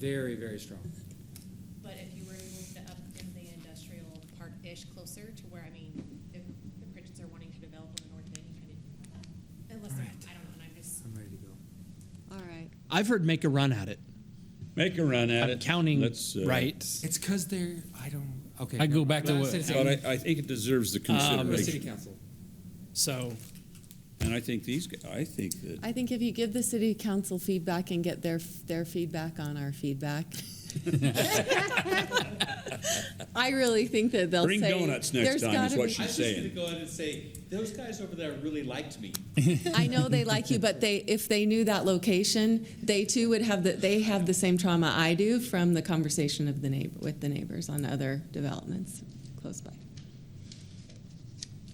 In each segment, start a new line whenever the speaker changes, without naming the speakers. Very, very strong.
But if you were to move to up in the industrial park-ish closer to where, I mean, if the Pritchett's are wanting to develop on the north end, you kind of, unless, they're-
Right.
I don't know, and I'm just,
I'm ready to go.
All right.
I've heard make a run at it.
Make a run at it.
I'm counting
Let's, uh,
right.
It's because they're, I don't, okay.
I go
never
back to
mind.
what-
City
But
council.
I, I think it deserves the
Uh, City
consideration.
council.
So
And I think these, gu- I think that,
I think if you give the city council feedback and get their, their feedback on our feedback. I really think that they'll
Bring
say.
donuts next
"There's
time is
gotta
what
be-
she
I
Just
was just
saying.
gonna go out and say, those guys over there really liked me.
I know they like you, but they, if they knew that location, they too would have the, they have the same trauma I do from the conversation of the neighbor, with the neighbors on other developments close by.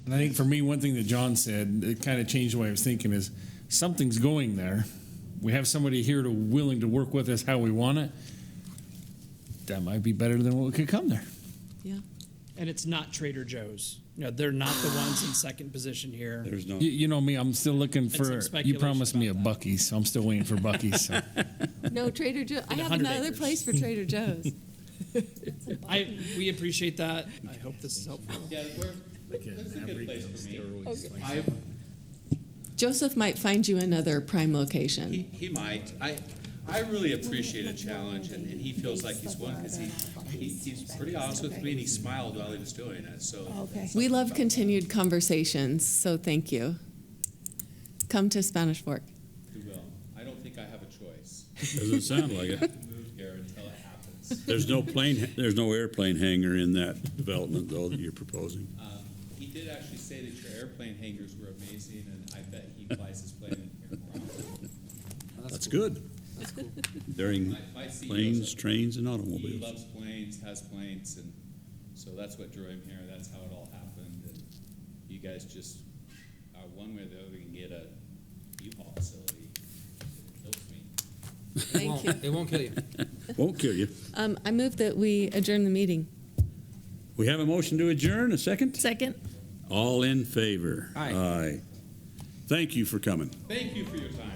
And I think for me, one thing that John said it kind of changed the way I was thinking is something's going there. We have somebody here to willing to work with us how we want it. That might be better than what could come there.
Yeah.
and it's not Trader Joe's. You know, they're not the ones in second position here.
there's no,
You, you know me, I'm still looking
some
for. You
speculation
promised me a
about that.
Bucky's, so I'm still waiting for Bucky's. So.
No, Trader Joe, I
In a
have
hundred
another
acres.
place for Trader Joe's.
I we appreciate that. I hope this is helpful.
Yeah, where, that's a good place for me. I,
Joseph might find you another prime
he,
location.
he might. I, I really appreciate a challenge and, and he feels like he's won because he, he, he's pretty honest with me and he smiled while he was doing it, so.
Okay.
We love continued conversations, so thank you. Come to Spanish Fork.
He will. I don't think I have a choice.
doesn't sound like it.
Move here until it happens.
There's no plane, there's no airplane hangar in that development though that you're proposing.
Um, He did actually say that your airplane hangars were amazing and I bet he flies his plane in here more often.
That's good. During
My, my CEO's
planes,
a-
trains, and
He
automobiles.
loves planes, has planes, and so that's what drew him here. That's how it all happened. And you guys just are one way or the other can get a U-Haul facility. It kills me.
It
Thank
won't-
you.
It won't kill you.
Won't kill you.
Um, I move that we adjourn the meeting.
We have a motion to adjourn, a second?
Second.
All in favor?
Aye.
Aye. Thank you for coming.
Thank you for your time.